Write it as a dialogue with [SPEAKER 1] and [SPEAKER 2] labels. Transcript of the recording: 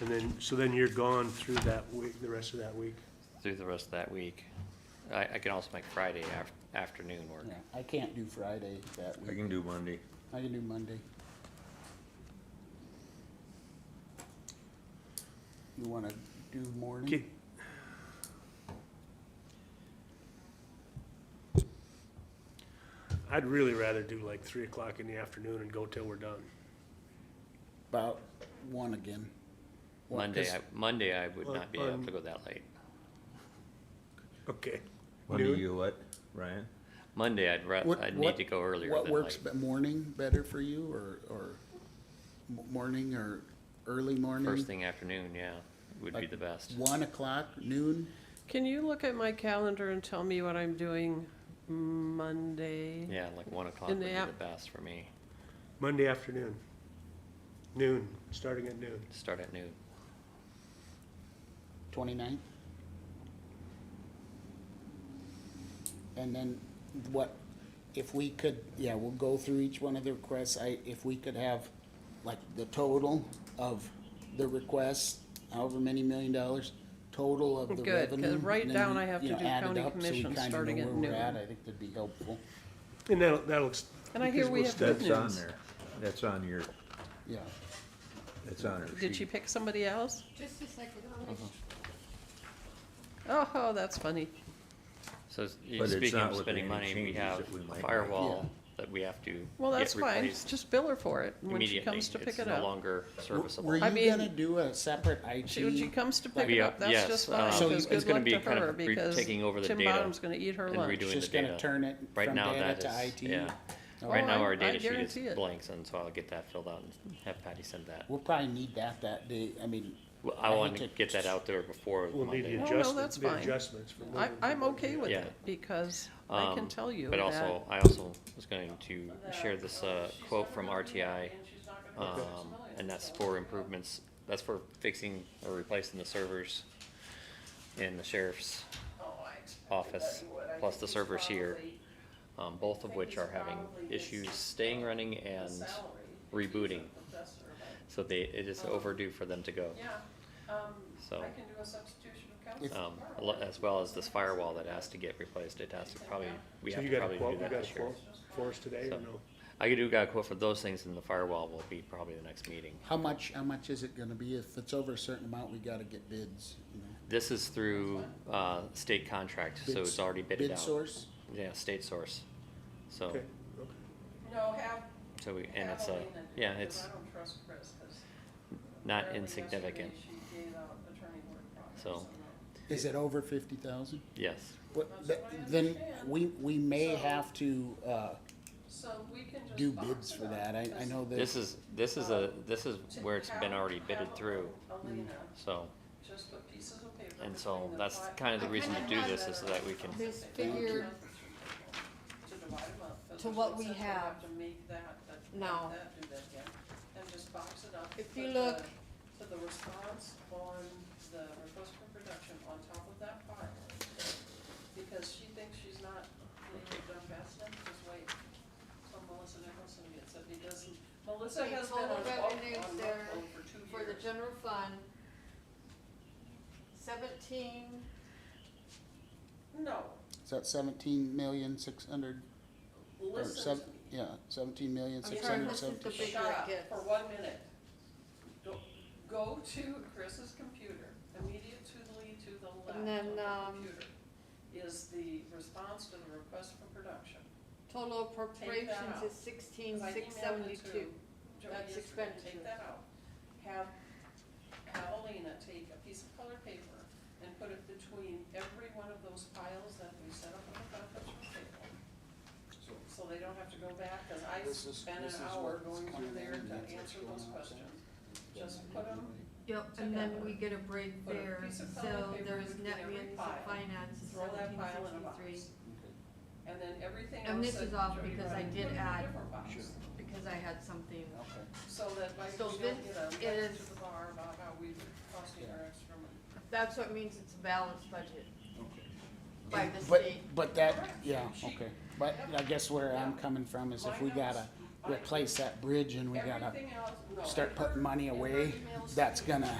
[SPEAKER 1] And then, so then you're gone through that week, the rest of that week?
[SPEAKER 2] through the rest of that week. I, I can also make Friday af- afternoon work.
[SPEAKER 3] Yeah, I can't do Friday that
[SPEAKER 4] I
[SPEAKER 3] week.
[SPEAKER 4] can do Monday.
[SPEAKER 3] I can do Monday. You wanna do morning?
[SPEAKER 2] Mm-hmm.
[SPEAKER 1] Okay. I'd really rather do like three o'clock in the afternoon and go till we're done.
[SPEAKER 3] About one again. Well,
[SPEAKER 2] Monday,
[SPEAKER 3] 'cause
[SPEAKER 2] I, Monday I would
[SPEAKER 1] Well,
[SPEAKER 2] not be able
[SPEAKER 1] um,
[SPEAKER 2] to go that late.
[SPEAKER 1] Okay.
[SPEAKER 4] Monday,
[SPEAKER 1] Noon?
[SPEAKER 4] you what, Ryan?
[SPEAKER 2] Monday, I'd ra-
[SPEAKER 3] what-
[SPEAKER 2] I'd
[SPEAKER 3] what-
[SPEAKER 2] need to go earlier
[SPEAKER 3] What
[SPEAKER 2] than
[SPEAKER 3] works,
[SPEAKER 2] like
[SPEAKER 3] be- morning better for you or, or m- morning or early morning?
[SPEAKER 2] first thing afternoon, yeah, would be
[SPEAKER 3] Like
[SPEAKER 2] the best.
[SPEAKER 3] One o'clock, noon?
[SPEAKER 5] Can you look at my calendar and tell me what I'm doing Monday?
[SPEAKER 2] Yeah, like one o'clock
[SPEAKER 5] In
[SPEAKER 2] would
[SPEAKER 5] the
[SPEAKER 2] be
[SPEAKER 5] app-
[SPEAKER 2] the best for me.
[SPEAKER 1] Monday afternoon, noon, starting at noon.
[SPEAKER 2] Start at noon.
[SPEAKER 3] Twenty-ninth? And then what, if we could, yeah, we'll go through each one of the requests, I, if we could have like the total of the requests, however many million dollars, total of the
[SPEAKER 5] Good, 'cause
[SPEAKER 3] revenue.
[SPEAKER 5] right
[SPEAKER 3] and then
[SPEAKER 5] down
[SPEAKER 3] we,
[SPEAKER 5] I have to
[SPEAKER 3] you know,
[SPEAKER 5] do
[SPEAKER 3] add it
[SPEAKER 5] county
[SPEAKER 3] up so we
[SPEAKER 5] commission
[SPEAKER 3] kinda know
[SPEAKER 5] starting at
[SPEAKER 3] where we're at.
[SPEAKER 5] noon.
[SPEAKER 3] I think that'd be helpful,
[SPEAKER 1] And that'll, that'll. ex-
[SPEAKER 5] And I hear
[SPEAKER 1] because
[SPEAKER 5] we
[SPEAKER 1] we'll
[SPEAKER 5] have
[SPEAKER 1] start-
[SPEAKER 5] Good
[SPEAKER 4] That's on
[SPEAKER 5] news.
[SPEAKER 4] there. That's on your,
[SPEAKER 3] yeah.
[SPEAKER 4] that's on her
[SPEAKER 5] Did she
[SPEAKER 4] sheet.
[SPEAKER 5] pick somebody else?
[SPEAKER 6] Just a second, how
[SPEAKER 3] Uh-huh.
[SPEAKER 6] many
[SPEAKER 5] Oh, that's funny.
[SPEAKER 2] So s- you-
[SPEAKER 4] But it's
[SPEAKER 2] speaking
[SPEAKER 4] not
[SPEAKER 2] of
[SPEAKER 4] with
[SPEAKER 2] spending
[SPEAKER 4] any
[SPEAKER 2] money, we
[SPEAKER 4] changes
[SPEAKER 2] have
[SPEAKER 4] that we might
[SPEAKER 2] a
[SPEAKER 4] make.
[SPEAKER 2] firewall
[SPEAKER 3] Yeah.
[SPEAKER 2] that we have to
[SPEAKER 5] Well,
[SPEAKER 2] get
[SPEAKER 5] that's fine.
[SPEAKER 2] replaced
[SPEAKER 5] Just bill her for it when she
[SPEAKER 2] immediately.
[SPEAKER 5] comes to pick
[SPEAKER 2] It's
[SPEAKER 5] it
[SPEAKER 2] no
[SPEAKER 5] up.
[SPEAKER 2] longer
[SPEAKER 3] Were
[SPEAKER 2] serviceable.
[SPEAKER 3] you
[SPEAKER 5] mean-
[SPEAKER 3] gonna do a separate IT?
[SPEAKER 5] She, when she comes to pick
[SPEAKER 2] We
[SPEAKER 5] it
[SPEAKER 2] are-
[SPEAKER 5] up, that's
[SPEAKER 2] yes,
[SPEAKER 5] just
[SPEAKER 2] um,
[SPEAKER 5] fine,
[SPEAKER 3] So
[SPEAKER 5] because
[SPEAKER 3] it's
[SPEAKER 5] good
[SPEAKER 2] gonna
[SPEAKER 5] luck
[SPEAKER 2] be
[SPEAKER 5] to
[SPEAKER 2] kind of
[SPEAKER 5] her,
[SPEAKER 2] re-
[SPEAKER 5] because
[SPEAKER 2] taking over the
[SPEAKER 5] Tim
[SPEAKER 2] data
[SPEAKER 5] Bottom's gonna eat her
[SPEAKER 2] and
[SPEAKER 5] lunch.
[SPEAKER 2] redoing
[SPEAKER 3] She's
[SPEAKER 2] the
[SPEAKER 3] gonna
[SPEAKER 2] data.
[SPEAKER 3] turn it
[SPEAKER 2] Right
[SPEAKER 3] from
[SPEAKER 2] now,
[SPEAKER 3] data
[SPEAKER 2] that
[SPEAKER 3] to
[SPEAKER 2] is-
[SPEAKER 3] IT?
[SPEAKER 2] Yeah.
[SPEAKER 3] Oh,
[SPEAKER 2] Right now,
[SPEAKER 5] I-
[SPEAKER 2] our
[SPEAKER 5] I
[SPEAKER 2] data sheet
[SPEAKER 5] guarantee
[SPEAKER 2] is
[SPEAKER 5] it.
[SPEAKER 2] blanks, and so I'll get that filled out and have Patty send that.
[SPEAKER 3] We'll probably need that that day, I mean,
[SPEAKER 2] Well,
[SPEAKER 3] I
[SPEAKER 2] I
[SPEAKER 3] think
[SPEAKER 2] want to
[SPEAKER 3] it-
[SPEAKER 2] get that out there before
[SPEAKER 1] We'll need the
[SPEAKER 2] Monday.
[SPEAKER 5] Oh, no,
[SPEAKER 1] adjustments,
[SPEAKER 5] that's
[SPEAKER 1] the
[SPEAKER 5] fine.
[SPEAKER 1] adjustments. for
[SPEAKER 5] I,
[SPEAKER 1] moving
[SPEAKER 5] I'm
[SPEAKER 1] forward.
[SPEAKER 5] okay with
[SPEAKER 2] Yeah.
[SPEAKER 5] it, because I can
[SPEAKER 2] Um,
[SPEAKER 5] tell you
[SPEAKER 2] But
[SPEAKER 5] that,
[SPEAKER 2] also, I also was going to share this uh, quote from RTI, um, and that's for improvements, that's for fixing or replacing the servers in the sheriff's office, plus the servers here, um, both of which are having issues staying running and rebooting. So they, it is overdue for them to go. So.
[SPEAKER 5] um, do a substitution of counsel.
[SPEAKER 3] if,
[SPEAKER 2] um, al- as well as this firewall that has to get replaced, it has to probably, we
[SPEAKER 1] So
[SPEAKER 2] have
[SPEAKER 1] you
[SPEAKER 2] to
[SPEAKER 1] got a
[SPEAKER 2] probably do
[SPEAKER 1] quote, you
[SPEAKER 2] that
[SPEAKER 1] got a
[SPEAKER 2] this year.
[SPEAKER 1] quote for us today
[SPEAKER 2] So-
[SPEAKER 1] or no?
[SPEAKER 2] I could do, got a quote for those things, and the firewall will be probably the next meeting.
[SPEAKER 3] how much, how much is it gonna be? If it's over a certain amount, we gotta get bids, you know?
[SPEAKER 2] This is through, uh, state contract, so
[SPEAKER 3] Bids-
[SPEAKER 2] it's already bidded
[SPEAKER 3] Bid
[SPEAKER 2] out.
[SPEAKER 3] source?
[SPEAKER 2] Yeah, state source. So,
[SPEAKER 1] Okay, okay.
[SPEAKER 5] No, have,
[SPEAKER 2] so we, and it's a, yeah, it's
[SPEAKER 5] don't trust Chris, because.
[SPEAKER 2] not insignificant, So-
[SPEAKER 3] Is it over fifty thousand?
[SPEAKER 2] yes.
[SPEAKER 3] Then we, we may
[SPEAKER 5] So-
[SPEAKER 3] have to, uh,
[SPEAKER 5] So we can just.
[SPEAKER 3] do
[SPEAKER 5] box
[SPEAKER 3] bids
[SPEAKER 5] it
[SPEAKER 3] for
[SPEAKER 5] up,
[SPEAKER 3] that. I, I
[SPEAKER 5] 'cause
[SPEAKER 3] know that.
[SPEAKER 2] This is, this is a, this is
[SPEAKER 5] to
[SPEAKER 2] where it's been
[SPEAKER 5] have-
[SPEAKER 2] already
[SPEAKER 5] have
[SPEAKER 2] bidded through,
[SPEAKER 5] Elena
[SPEAKER 2] so,
[SPEAKER 5] just put pieces of paper
[SPEAKER 2] and
[SPEAKER 5] between
[SPEAKER 2] so
[SPEAKER 5] the
[SPEAKER 2] that's
[SPEAKER 5] five-
[SPEAKER 2] kind of the
[SPEAKER 6] I
[SPEAKER 2] reason to
[SPEAKER 6] kinda
[SPEAKER 2] do
[SPEAKER 6] have
[SPEAKER 2] this, is so that we can,
[SPEAKER 6] This
[SPEAKER 5] Thank
[SPEAKER 6] figure,
[SPEAKER 5] you. To divide 'em up, 'cause
[SPEAKER 6] to
[SPEAKER 5] there's
[SPEAKER 6] what
[SPEAKER 5] no
[SPEAKER 6] we
[SPEAKER 5] sense in
[SPEAKER 6] have
[SPEAKER 5] to make that, that, do
[SPEAKER 6] now.
[SPEAKER 5] that, do that again, and just box it up.
[SPEAKER 6] If
[SPEAKER 5] put
[SPEAKER 6] you
[SPEAKER 5] the-
[SPEAKER 6] look-
[SPEAKER 5] Put the response on the request for production on top of that file, because she thinks she's not getting it done fast enough, just wait till Melissa Nicholson gets it, because Melissa
[SPEAKER 6] Okay,
[SPEAKER 5] has been on,
[SPEAKER 6] total
[SPEAKER 5] on
[SPEAKER 6] revenues there
[SPEAKER 5] Rockwell for two years.
[SPEAKER 6] for the general fund, seventeen,
[SPEAKER 5] No,
[SPEAKER 3] Is that seventeen million, six hundred, or
[SPEAKER 5] listen
[SPEAKER 3] seven,
[SPEAKER 5] to me.
[SPEAKER 3] yeah, seventeen million,
[SPEAKER 6] I'm
[SPEAKER 3] six
[SPEAKER 6] sorry,
[SPEAKER 3] hundred
[SPEAKER 6] this is the
[SPEAKER 3] seventy.
[SPEAKER 6] big-
[SPEAKER 5] Shut up
[SPEAKER 6] gets.
[SPEAKER 5] for one minute. Go- Go to Chris's computer, immediately to the left
[SPEAKER 6] And then,
[SPEAKER 5] on
[SPEAKER 6] um,
[SPEAKER 5] the computer is the response to the request for production.
[SPEAKER 6] total appropriations
[SPEAKER 5] out.
[SPEAKER 6] is sixteen,
[SPEAKER 5] 'Cause I
[SPEAKER 6] six
[SPEAKER 5] emailed it to
[SPEAKER 6] seventy-two.
[SPEAKER 5] Joe
[SPEAKER 6] That's
[SPEAKER 5] yesterday.
[SPEAKER 6] expenditure.
[SPEAKER 5] Take that out. Have, have Alina take a piece of colored paper and put it between every one of those piles that we set up on the conference room table. So they don't have to go back, cause I
[SPEAKER 3] This is-
[SPEAKER 5] spent
[SPEAKER 3] this
[SPEAKER 5] an
[SPEAKER 3] is
[SPEAKER 5] hour
[SPEAKER 3] what's
[SPEAKER 5] going
[SPEAKER 3] coming
[SPEAKER 5] through there
[SPEAKER 3] in, and
[SPEAKER 5] to
[SPEAKER 3] that's what's
[SPEAKER 5] answer
[SPEAKER 3] going
[SPEAKER 5] those
[SPEAKER 3] out, so.
[SPEAKER 5] questions. Just put 'em
[SPEAKER 6] Yep, and then we get a break
[SPEAKER 5] Put a
[SPEAKER 6] there,
[SPEAKER 5] piece of
[SPEAKER 6] so
[SPEAKER 5] colored paper
[SPEAKER 6] there is
[SPEAKER 5] between
[SPEAKER 6] net
[SPEAKER 5] every
[SPEAKER 6] municipal
[SPEAKER 5] file.
[SPEAKER 6] finance is
[SPEAKER 5] Throw that
[SPEAKER 6] seventeen
[SPEAKER 5] file in a
[SPEAKER 6] sixty-three.
[SPEAKER 5] box. And then everything else.
[SPEAKER 6] And this
[SPEAKER 5] that
[SPEAKER 6] is off
[SPEAKER 5] Jody
[SPEAKER 6] because I
[SPEAKER 5] wrote,
[SPEAKER 6] did
[SPEAKER 5] put it in a
[SPEAKER 6] add-
[SPEAKER 5] different box.
[SPEAKER 3] Sure.
[SPEAKER 6] Because I had something,
[SPEAKER 3] Okay.
[SPEAKER 5] So that like
[SPEAKER 6] So
[SPEAKER 5] we
[SPEAKER 6] this
[SPEAKER 5] don't get a letter
[SPEAKER 6] is-
[SPEAKER 5] to the bar about how we costing our extra money.
[SPEAKER 6] that's what means it's a balanced budget by the
[SPEAKER 3] But,
[SPEAKER 6] state.
[SPEAKER 3] but that, yeah, okay, but I guess where I'm coming from is if we gotta replace that bridge and we gotta
[SPEAKER 5] Everything else, no.
[SPEAKER 3] start putting money
[SPEAKER 5] And her
[SPEAKER 3] away,
[SPEAKER 5] emails
[SPEAKER 3] that's
[SPEAKER 5] to-
[SPEAKER 3] gonna